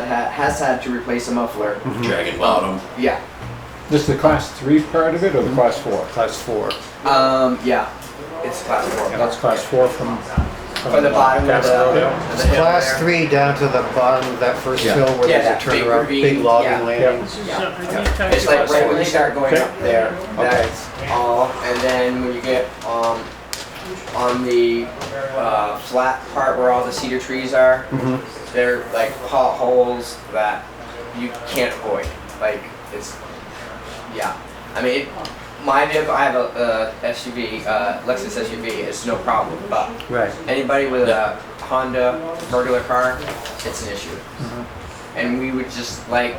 had, had, has had to replace a muffler. Dragon Bottom. Yeah. This is the class three part of it or the class four? Class four. Um, yeah. It's class four. Yeah, that's class four from. from, For the uh, bottom of the, Castle Hill. of the hill Class there. three down to the bottom of that first Yeah. hill where Yeah, there's a that big turnaround, big ravine, logging yeah. landing. Yeah. Yeah. It's like right when you start going Okay. up there. That's all. And then when you get um, on the uh, flat part where all the cedar trees are, Mm-hmm. they're like potholes that you can't avoid. Like it's, yeah. I mean, it, my vehicle, I have a, a SUV, uh, Lexus SUV. It's no problem, but Right. anybody with a Honda regular car, it's an issue. Mm-hmm. And we would just like,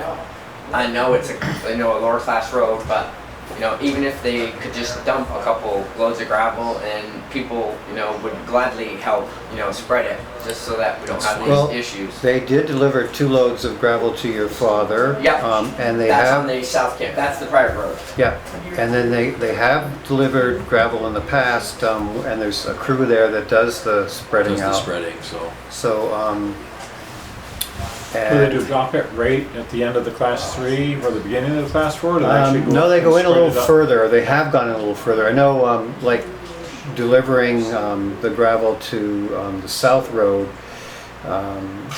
I know it's a, I know a lower class road, but you know, even if they could just dump a couple loads of gravel and people, you know, would gladly help, you know, spread it just so that we don't have these Well, issues. They did deliver two loads of gravel to your father. Yeah. Um, and they that's have. on the south camp. That's the private road. Yeah, and then they, they have delivered gravel in the past, um, and there's a crew there that does the spreading Does the out. spreading, so. So, um, Do they do and, drop it right at the end of the class three or the beginning of the class four? or do actually um, no, they up go and in a little spread it up? further, they have gone in a little further. I know, um, like delivering, um, the gravel to, um, the South Road, um,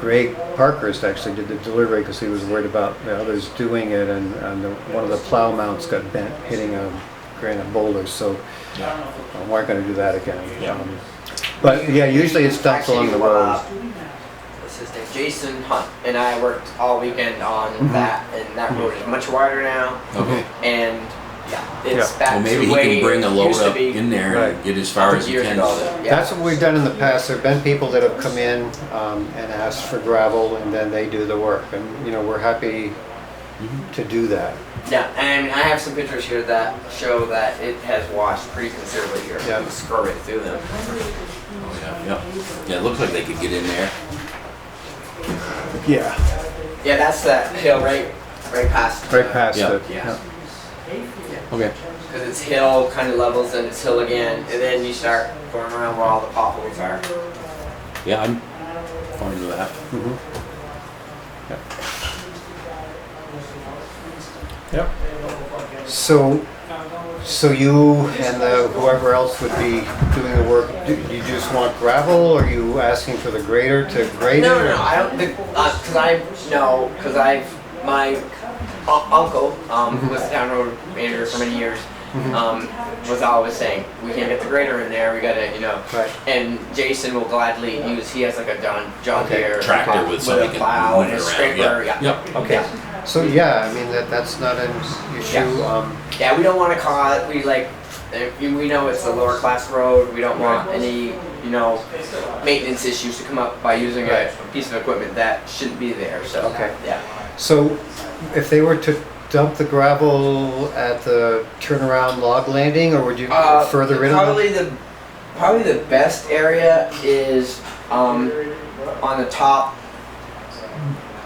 Greg Parkhurst actually did the delivery because he was worried about the others doing it and, and the- one of the plow mounts got bent hitting a granite boulder, so uh, weren't gonna do that again. Yeah. Um, But yeah, usually it's dumped along the Actually, uh, road. What's his name? Jason Hunt and I worked all weekend on Mm-hmm. that, and that road is much wider now. Okay. and yeah, it's Yeah. back Well, maybe to he way can bring a it load used to up be in there and Right. get as far as he years can. ago. with it. Yeah. That's what we've done in the past. There've been people that have come in um, and asked for gravel and then they do the work. And, you know, we're happy to do that. yeah, and I have some pictures here that show that it has washed pretty considerably here. Yeah. You can scrub it through them. Oh, Yeah, yeah. Yeah, it looks like they could get in there. Yeah. Yeah, that's that hill right, right past. uh, Right past Yeah. it. Yeah, Okay. because it's hill kind of levels and it's hill again, and then you start going around where all the potholes are. Yeah, I'm fine with that. Mhm. Yep. So, so you and the whoever else would be doing the work, do you just want gravel or are you asking for the grader to grade it? No, no, or- no. I don't think because I no because I've my u- uncle um, who was the town road manager for many years Mm-hmm. um, was always saying we can't get the grader in there. We gotta you know. Right. And Jason will gladly use. He has like a John John Okay. Deere Tractor plow- with so he a can plow move and a it around, scraper. yeah. Yeah. Yep. Okay. So, yeah, I mean, that, that's not an issue. Yeah. Um, Yeah, we don't want to cause we like eh, we know it's a lower class road. We don't want any you know maintenance issues to come up by using Right. a piece of equipment that shouldn't be there. So Okay. yeah. So if they were to dump the gravel at the turnaround log landing, or would you Uh, further in on probably the it? probably the best area is um, on the top,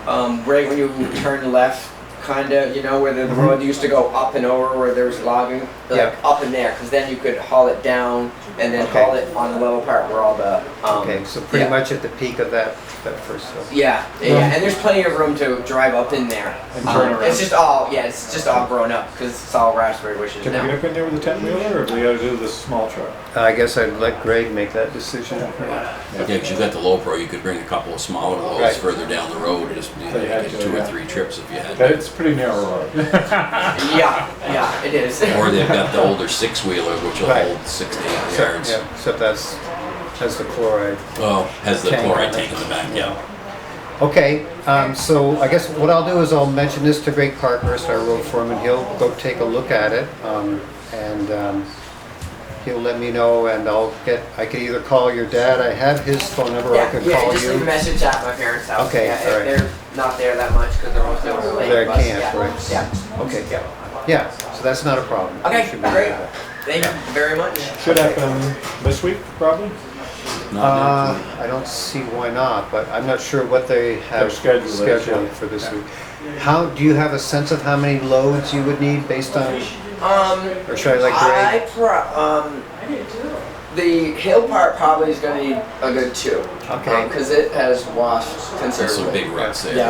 um, right when you turn left, kind of you know where the road used to go up and over where there was logging, like Mm-hmm. Yeah. up in there, because then you could haul it down and then Okay. haul it on the level part where all the um, Okay, so pretty yeah. much at the peak of that, that first hill. Yeah, yeah, yeah, and there's plenty of room to drive up in there. Um, And turn around. it's just all yeah, it's just all grown up because it's all raspberry bushes Can we get now. up in there with a ten wheeler or do we gotta do the small truck? I guess I'd let Greg make that decision. Yeah, 'cause you got the low pro, you could bring a couple of smaller loads Right. further down the road. Just you know, They had get to, two yeah. or three trips if you had. That to. it's pretty narrow road. Yeah, yeah, it is. Or they've got the older six wheeler, which will Right. hold six to eight Except- yards. yeah, Except that's, that's the chloride. Oh, has the Tank on chloride it. tank in the back. Yeah. Okay, um, so I guess what I'll do is I'll mention this to Greg Parkhurst, our road foreman. He'll go take a look at it, um, and, um, he'll let me know and I'll get, I could either call your dad, I have his phone number, I Yeah, could yeah, call just leave a you. message at my parents' house. Okay, yeah, if alright. They're not there that much because they're almost over late. They but can't, yeah, right. Yeah. Okay, yeah, yeah, so that's not a problem. Okay, Should be great. good. Thank you very much. Should happen this week, probably. Not Uh, I don't see why not, but I'm not sure what they have schedule is, yeah. scheduled for this week. How, do you have a sense of how many loads you would need based on, Um, or should I let Greg? I pro, um, the hill part probably is gonna need a good two. Okay. Because it has washed considerably. There's some big ruts there. Yeah.